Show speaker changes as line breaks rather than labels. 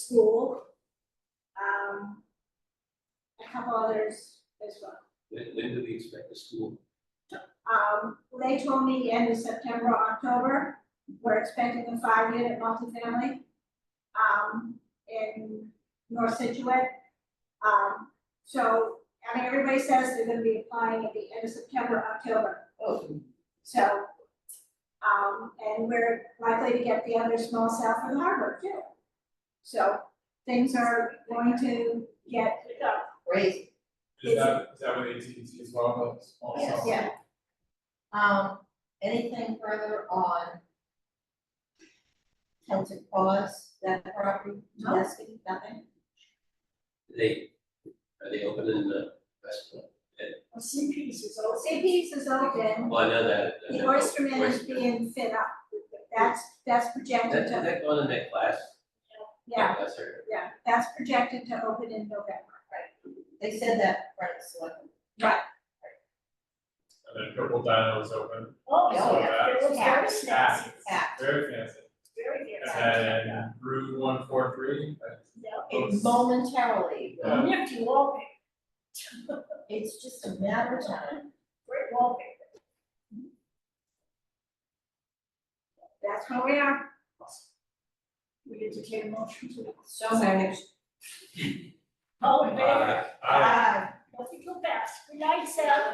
um, couple others as well.
When, when do we expect the school?
Um, they told me the end of September, October, we're expecting a five unit multifamily. Um, in North Situate. Um, so, I mean, everybody says they're gonna be applying at the end of September, October. So, um, and we're likely to get the other small south of harbor too. So, things are going to get,
Great,
Is that, is that what AT&T as well, the small
Yes.
cell?
yeah,
um, anything further on? Celtic cause that property,
No.
Nothing? nothing?
Are They, are they open in the restaurant?
CP's is
CP's is open.
Well, Oh, I know that. I
The
know
oysterman is
oyster-
being fit up, that's, that's projected
That, that,
to,
that going in that class?
yeah,
That's her.
yeah, that's projected to open in November.
They said that, right, selectmen.
And then Purple Dino is open,
Oh,
yeah.
yeah, it was very
Yeah.
snazzy,
Act.
very fancy.
very good.
And then Route one four three,
Yeah,
It momentarily,
Yeah.
nifty wallpaper,
it's just a matter of time.
great wallpaper.
That's where we are.
We did the cable motion to the,
So moved.
oh, man,
Uh, I-
Aye.
nothing too fast, good night, Sal.